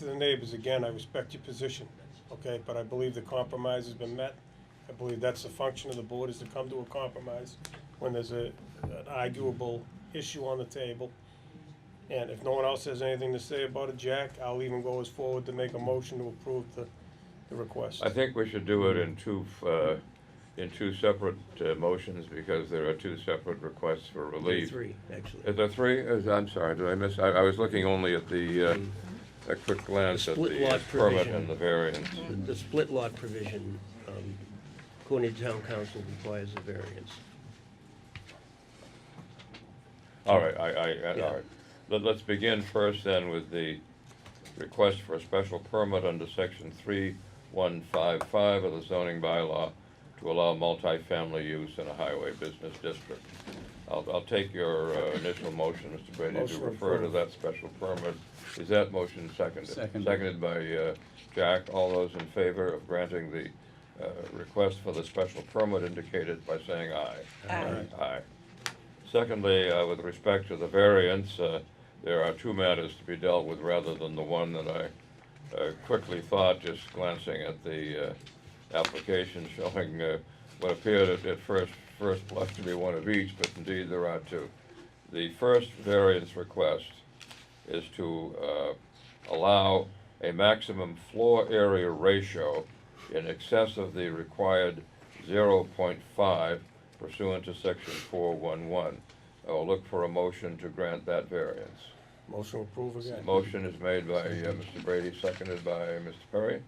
To the neighbors, again, I respect your position, okay, but I believe the compromise has been met. I believe that's the function of the board, is to come to a compromise when there's a, an arguable issue on the table. And if no one else has anything to say about it, Jack, I'll even go as forward to make a motion to approve the, the request. I think we should do it in two, uh, in two separate uh, motions because there are two separate requests for relief. Three, actually. Is there three? Is, I'm sorry, did I miss, I, I was looking only at the, uh, a quick glance The at split lot the uh, permit provision. and the variance. The split lot provision, um, according to town council, requires a variance. All right, I, I, I- Yeah. all right. Let, let's begin first then with the request for a special permit under section three one five five of the zoning bylaw to allow multifamily use in a highway business district. I'll, I'll take your uh, initial motion, Mr. Brady, to Motion refer to approved. that special permit. Is that motion seconded? Seconded. Seconded by, uh, Jack. All those in favor of granting the, uh, request for the special permit indicated by saying aye. Aye. Aye. Secondly, uh, with respect to the variance, uh, there are two matters to be dealt with rather than the one that I uh, quickly thought, just glancing at the uh, application showing uh, what appeared at at first, first blush to be one of each, but indeed there are two. The first variance request is to uh, allow a maximum floor area ratio in excess of the required 0.5 pursuant to section 411. I'll look for a motion to grant that variance. Motion approved again. Motion is made by uh, Mr. Brady, seconded by Mr. Perry.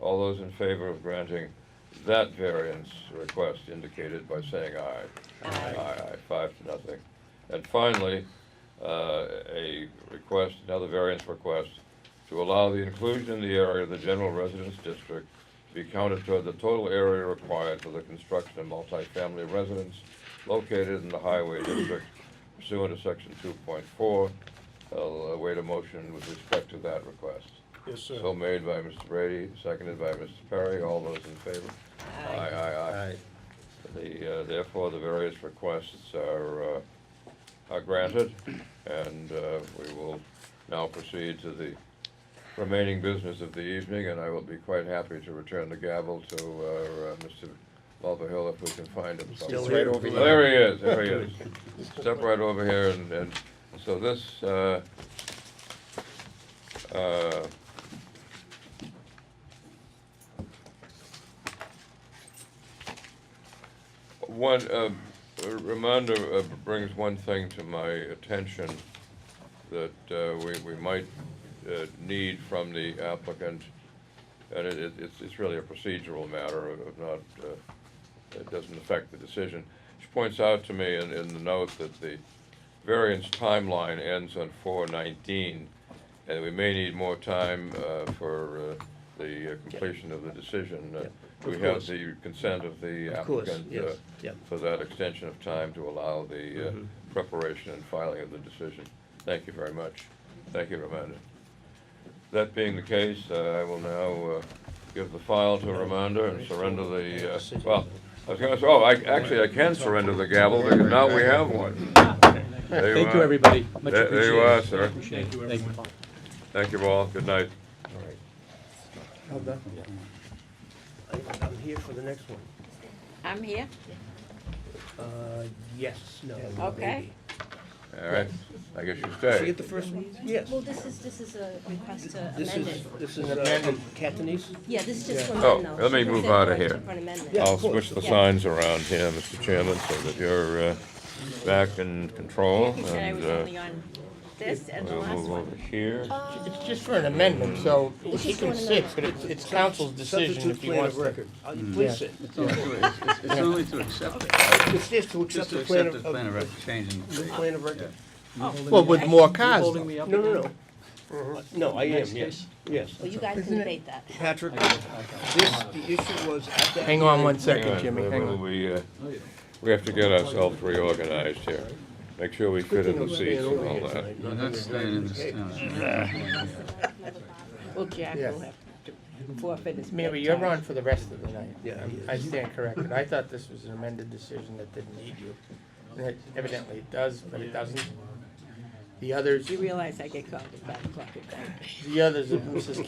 All those in favor of granting that variance request indicated by saying aye. Aye. Aye, five to nothing. And finally, uh, a request, another variance request, to allow the inclusion in the area of the general residence district to be counted toward the total area required for the construction of multifamily residence located in the highway district pursuant to section two point four. I'll await a motion with respect to that request. Yes, sir. So made by Mr. Brady, seconded by Mr. Perry, all those in favor? Aye. Aye, aye. The, uh, therefore, the various requests are, uh, are granted, and, uh, we will now proceed to the remaining business of the evening, and I will be quite happy to return the gavel to, uh, uh, Mr. Mulvihill if we can find him somewhere. Still here. Well, There he is, there he is. Step right over here and, and, so this, uh, uh, one, uh, Ramonda uh, brings one thing to my attention that, uh, we, we might, uh, need from the applicant. And it, it, it's, it's really a procedural matter of not, uh, it doesn't affect the decision. She points out to me in, in the note that the variance timeline ends on four nineteen, and we may need more time, uh, for, uh, the uh, completion of the decision. Uh, Yeah, We of have course. the consent of the Of course, applicant, yes, uh, yeah. for that extension of time to allow the, uh, preparation and filing of the decision. Thank you very much. Thank you, Ramonda. That being the case, uh, I will now uh, give the file to Ramanda and surrender the, uh, well, I was gonna say, oh, I, actually, I can surrender the gavel, because now we have one. There Thank you, are. everybody. Much There- appreciated. there you are, sir. Thank you, everyone. Thank you all, good night. I- I'm here for the next one. I'm here. Uh, Yes, no. Okay. All right, I guess you So stay. get the first one? Yes. Well, this is, this is a request to This amend is, it. this is uh, from Catanese? Yeah, this is just for Oh, amendment. let me move outta here. Yeah. I'll of course. switch the signs around here, Mr. Chairman, so that you're uh, back in control, He said I and was uh, only on this and the we'll last move one. over here. It's just for an amendment, so he can sit, but it's, it's council's decision Substitute if he plan wants of to. record. Uh, Mm. Please sit. It's only to- it's- it's- it's only to accept it, It's just to accept just to the plan accept of, the plan of- of record, changing the the date. plan of record. Well, with more cars, Holding though. me up. No, no, again? no. Uh-huh. Mhm. No, I am, yes, yes. Well, you guys can debate that. Patrick, this, the issue was at that. hang on one time- second, Hang Jimmy, we- hang on. We, uh, we have to get ourselves reorganized here. Make sure we fit in the seats and all that. I'm not staying in this town. Well, Jack Yeah. will have to forfeit his Mary, you're bedtime. on for the rest of the night. Yeah, I'm- he I stand corrected. I thought this was an amended decision that didn't need you. And it- Evidently it does, but it doesn't. The others, You realize I get called at five o'clock at night. the others of Mrs.